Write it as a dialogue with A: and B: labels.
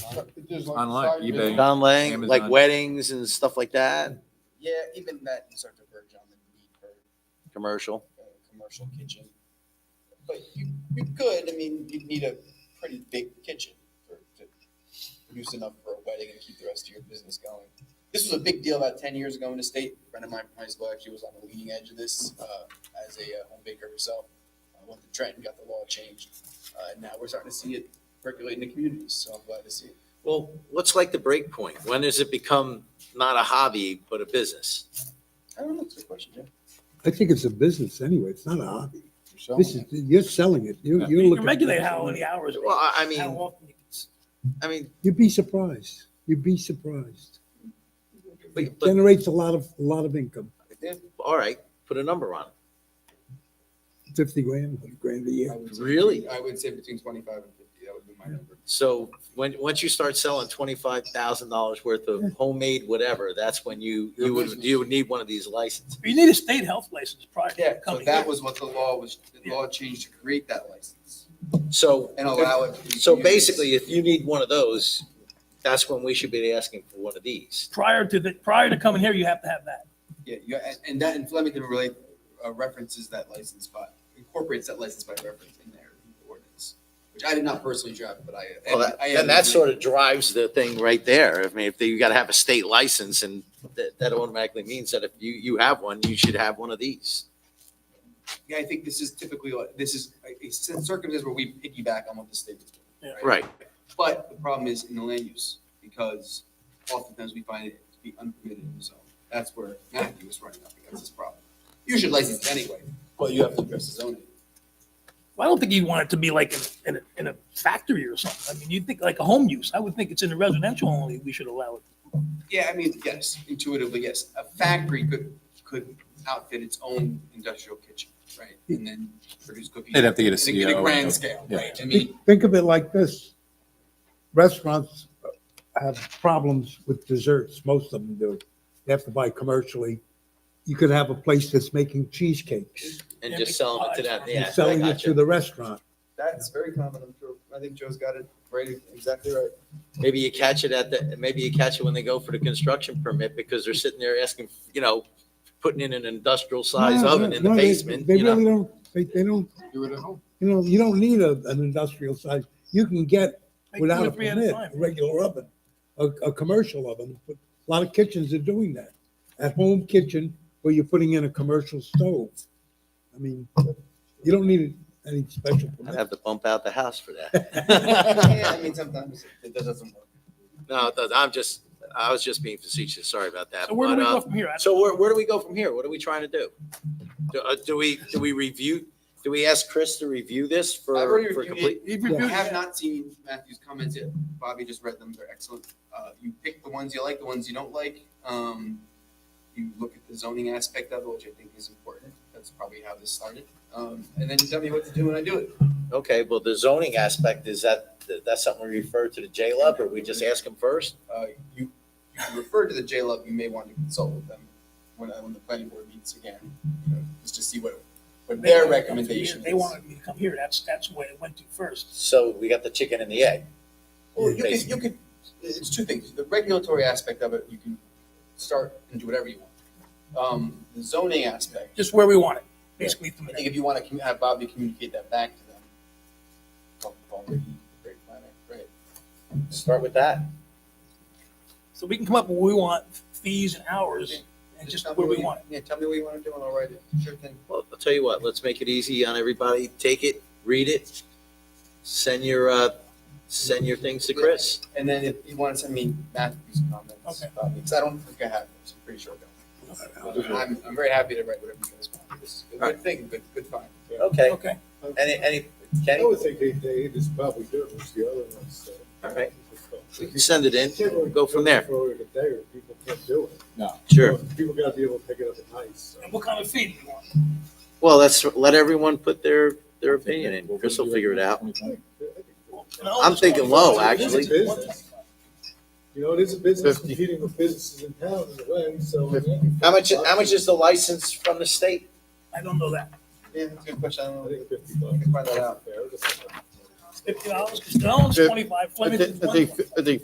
A: There's like
B: Online,
A: side
B: eBay.
A: business.
C: Don Lang, like
B: Amazon.
C: weddings and stuff like that,
D: Yeah, even that in certain version on the need for
C: commercial.
D: uh commercial kitchen. But you, you could, I mean, you'd need a pretty big kitchen for, to produce enough for a wedding and keep the rest of your business going. This was a big deal about ten years ago in the state. A friend of mine from high school actually was on the leading edge of this, uh, as a uh, home baker herself. Uh, went to Trenton, got the law changed, uh, and now we're starting to see it percolate in the communities, so I'm glad to see it.
E: Well, what's like the break point? When does it become not a hobby, but a business?
D: I don't know, that's a good question, Jim.
F: I think it's a business anyway. It's not a hobby.
A: You're selling
F: This
A: it.
F: is, you're selling it. You're, you're
G: You
F: looking.
G: can regulate how many hours,
E: Well, I I
G: how
E: mean,
G: often you can s-
E: I mean,
F: You'd be surprised. You'd be surprised.
E: but, but,
F: Generates a lot of, a lot of income,
E: all right, put a number on it.
F: fifty grand, hundred grand a year.
E: Really?
H: I would say between twenty-five and fifty, that would be my number.
E: So when, once you start selling twenty-five thousand dollars worth of homemade whatever, that's when you, you would, you would need one of these licenses.
G: You need a state health license prior
H: Yeah,
G: to
H: so
G: coming
H: that
G: here.
H: was what the law was, the law changed to create that license
E: So.
H: and allow it. to be
E: So
H: used.
E: basically, if you need one of those, that's when we should be asking for one of these.
G: Prior to the, prior to coming here, you have to have that.
H: Yeah, you, and, and that in Flemington really uh, references that license by, incorporates that license by reference in their ordinance, which I did not personally draft, but I.
E: Well, that-
H: I- I
E: And that sort of drives the thing right there. I mean, if they- you gotta have a state license and that, that automatically means that if you, you have one, you should have one of these.
H: Yeah, I think this is typically, like- this is a a circumstance where we piggyback on what the state is doing.
E: Right.
H: But the problem is in the land use, because oftentimes we find it to be unpermitted in the zone. That's where Matthew is running up against this problem. You should license it anyway, but you have to address the zoning.
G: Well, I don't think you'd want it to be like in, in a, in a factory or something. I mean, you'd think like a home use. I would think it's in a residential only, we should allow it.
H: Yeah, I mean, yes, intuitively, yes. A factory could, could outfit its own industrial kitchen, right? And then produce cookies.
B: They'd have to E get a
H: in in
B: CO.
H: grand scale, right? I mean,
F: Think of it like this. Restaurants have problems with desserts. Most of them do. They have to buy commercially. You could have a place that's making cheesecakes.
E: And just selling it to them.
F: You're
E: Yeah, I
F: selling it
E: got
F: to
E: you.
F: the restaurant.
H: that's very common, I'm sure. I think Joe's got it right, exactly right.
E: Maybe you catch it at the, maybe you catch it when they go for the construction permit because they're sitting there asking, you know, putting in an industrial size
F: No,
E: oven
F: no,
E: in the
F: no, they-
E: basement,
F: They
E: you know?
F: really don't, they, they don't,
A: Do it at home.
F: you know, you don't need a, an industrial size. You can get
G: Like two
F: without
G: or
F: a
G: three at a
F: permit,
G: time.
F: a regular oven, a, a commercial oven. But A lot of kitchens are doing that. At home kitchen where you're putting in a commercial stove. I mean, you don't need any special
E: I'd
F: permit.
E: have to bump out the house for that.
D: Yeah, I mean, sometimes it doesn't work.
E: No, it doesn't. I'm just, I was just being facetious. Sorry about that.
G: So where do
E: But,
G: we
E: uh,
G: go from here? I don't-
E: So where, where do we go from here? What are we trying to do? Do, uh, do we, do we review, do we ask Chris to review this for,
H: I've already
E: for
H: reviewed it.
E: complete?
H: I
F: Yeah.
H: have not seen Matthew's comments yet. Bobby just read them. They're excellent. Uh, you pick the ones you like, the ones you don't like. Um, you look at the zoning aspect of it, which I think is important. That's probably how this started. Um, and then you tell me what to do and I do it.
E: Okay, well, the zoning aspect, is that, that's something we refer to the J-Lub or we just ask him first?
H: Uh, you, you can refer to the JLUB. You may want to consult with them when, uh, when the planning board meets again, you know, just to see what, what their recommendation is.
G: They wanted me to come here. That's, that's where it went to first.
E: So we got the chicken and the egg.
H: Well, you could,
E: Basically.
H: you could, it's two things. The regulatory aspect of it, you can start and do whatever you want. Um, the zoning aspect,
G: just where we want it, basically. from
H: I
G: there.
H: think if you want to have Bobby communicate that back to them, talk to Paul Ricky, great planner, right?
E: Start with that.
G: So we can come up with what we want, fees and hours, and just
H: tell me
G: where we
H: what you-
G: want it.
H: Yeah, tell me what you want to do and I'll write it. Sure thing.
E: Well, I'll tell you what, let's make it easy on everybody. Take it, read it, send your, uh, send your things to Chris.
H: And then if you want to send me Matthew's comments,
G: Okay.
H: Bobby, because I don't think I have those, I'm pretty sure I don't. I'm, I'm very happy to write whatever you guys want. This is a good thing, good, good find.
E: Okay,
G: Okay,
E: any, any,
A: I
E: Kenny,
A: would think they, they just probably do it with the other ones. so.
E: All right. we can send it in,
A: Can't really
E: go from there.
A: Forward a day or people can't do it.
E: Sure.
A: People gotta be able to pick it up at night, so.
G: and what kind of fee do you want?
E: Well, that's, let everyone put their, their opinion in. Chris will figure it out.
G: No,
E: I'm
G: it's
E: thinking
G: not-
E: low, actually.
A: It's a business. You know, it is a business
E: Fifty.
A: competing with businesses in town in a way, so.
E: How much, how much is the license from the state?
G: I don't know that.
H: Yeah, that's a good question. I don't
A: I
H: know.
A: think fifty bucks.
H: Find that out.
A: Fair, just-
G: Fifty dollars, because Dylan's
I: Fif-
G: twenty-five,
I: I
G: Flemington's
I: thi- I
G: one
I: think, I think